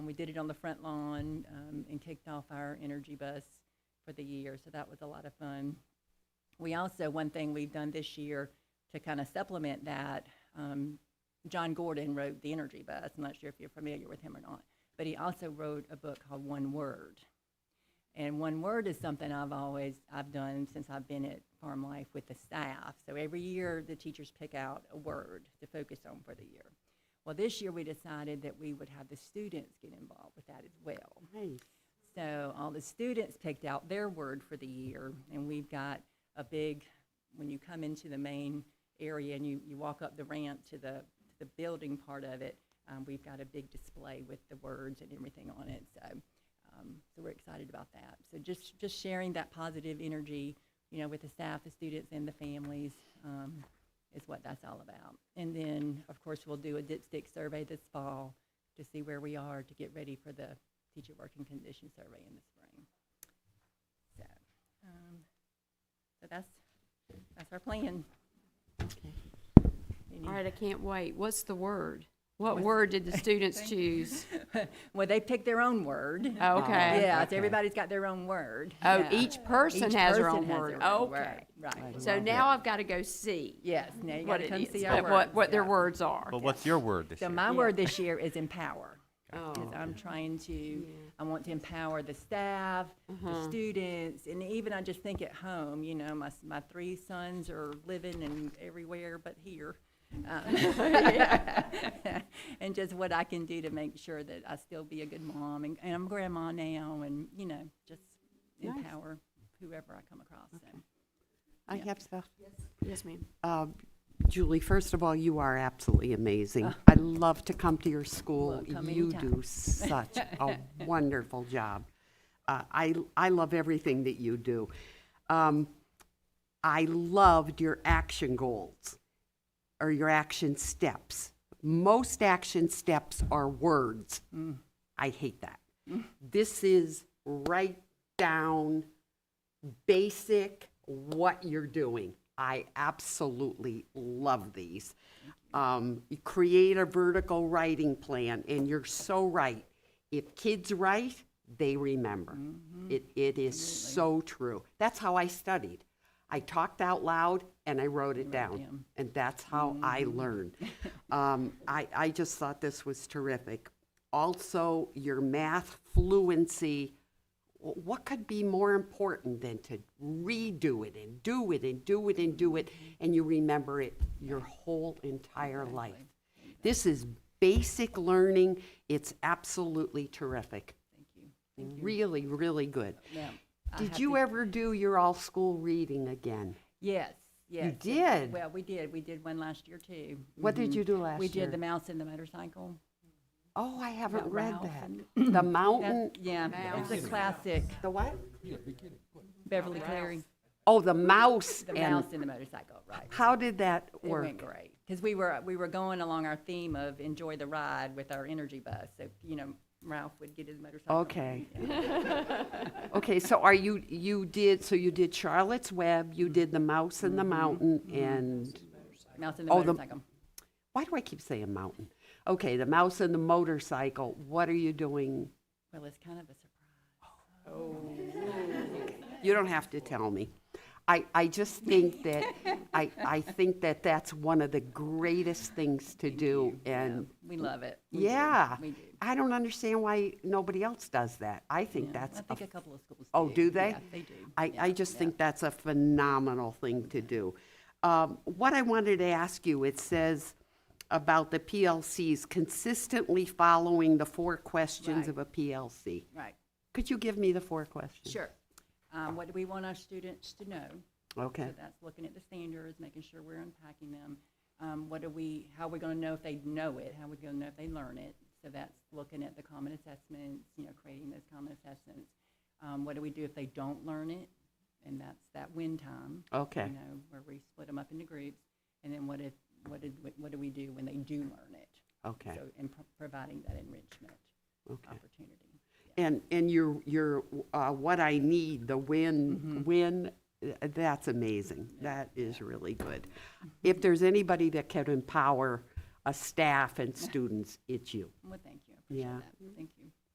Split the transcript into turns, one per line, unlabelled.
we did it on the front lawn um, and kicked off our energy bus for the year. So that was a lot of fun. We also, one thing we've done this year to kind of supplement that, um, John Gordon wrote The Energy Bus. I'm not sure if you're familiar with him or not, but he also wrote a book called One Word. And one word is something I've always I've done since I've been at Farm Life with the staff. So every year the teachers pick out a word to focus on for the year. Well, this year we decided that we would have the students get involved with that as well.
Nice.
So all the students picked out their word for the year, and we've got a big, when you come into the main area and you, you walk up the ramp to the, to the building part of it, um, we've got a big display with the words and everything on it, so, um, so we're excited about that. So just, just sharing that positive energy, you know, with the staff, the students, and the families, um, is what that's all about. And then, of course, we'll do a dipstick survey this fall to see where we are to get ready for the teacher working condition survey in the spring. So, um, so that's, that's our plan. Any-
All right, I can't wait. What's the word? What
What's-
word did the students choose?
Well, they pick their own word.
Oh, Okay.
Yeah, so
okay.
everybody's got their own word.
Oh,
Yeah.
each person has their own
person has
word. Oh,
their own
Okay.
word, Right.
So now I've got to go see
Yes, now you
what
gotta
it
come
is,
see
uh,
our
what,
words.
what their
yeah.
words are.
But what's your word this
So
year?
my
Yeah.
word this year is empower.
Oh,
because I'm trying to,
Yeah.
I want to empower the staff, the
Uh-huh.
students, and even I just think at home, you know, my, s- my three sons are living and everywhere but here. Um, And just what I can do to make sure that I still be a good mom, and, and I'm grandma now, and, you know, just
Nice.
empower whoever I come across, so.
I
Yeah.
have stuff.
Yes, ma'am.
Uh, Julie, first of all, you are absolutely amazing. I love to come to your school.
Oh. Well, come
You
anytime.
do such a wonderful job. Uh, I, I love everything that you do. Um, I loved your action goals or your action steps. Most action steps are words.
Mm.
I hate that. This is right down basic what you're doing. I absolutely love these. Um, you create a vertical writing plan, and you're so right. If kids write, they remember. It, it is so true. That's how I studied. I talked out loud and I wrote it down.
down.
And that's how I learned. Um, I, I just thought this was terrific. Also, your math fluency Wh- what could be more important than to redo it and do it and do it and do it and you remember it your whole entire life this is basic learning it's absolutely terrific
Thank you.
really really good
Yeah, I
did
have
you
to-
ever do your all school reading again
Yes, yes. it-
did?
Well, we did, we did one last year, too.
what did you do last
Mm-hmm. We
year
did The Mouse and the Motorcycle.
oh i haven't
About
read
Ralph
that the mountain
That- Yeah, it's a classic
the what
Beverly Cleary,
oh the mouse
the
and
mouse and the motorcycle, right.
how did that
It
work
went great, because we were, we were going along our theme of enjoy the ride with our energy bus, so, you know, Ralph would get his motorcycle.
Okay. Okay, so are you, you did, so you did Charlotte's Web,
Mm-hmm.
you did The Mouse and the Mountain, and,
Mouse and the
Oh, the-
motorcycle.
why do I keep saying mountain? Okay, The Mouse and the Motorcycle, what are you doing?
Well, it's kind of a surprise.
You don't have to tell me. I, I just think that, I, I think that that's one of the greatest things to do, and,
We love it. We do.
yeah.
We do.
I don't understand why nobody else does that. I think
I
that's a
think a couple of schools do.
Oh, do they?
Yeah, they do.
I, I just think that's a phenomenal thing to do. Um, What I wanted to ask you, it says about the PLCs consistently following the four questions
Right.
of a PLC.
Right,
Could you give me the four questions?
sure. Um, what do we want our students to know?
Okay,
So that's looking at the standards, making sure we're unpacking them. Um, what do we, how are we gonna know if they know it? How are we gonna know if they learn it? So that's looking at the common assessments, you know, creating those common assessments. Um, what do we do if they don't learn it? And that's that win time.
okay,
You know, where we split them up into groups. And then what if, what did, we- what do we do when they do learn it?
okay,
So, and pro- providing that enrichment
okay.
opportunity.
And, and your, your, uh, what I need, the
Mm-hmm.
win, win, uh, that's amazing. That is really good.
Mm-hmm.
If there's anybody that can empower a staff and students, it's you.
Well, thank you. I appreciate
Yeah.
that. Thank you.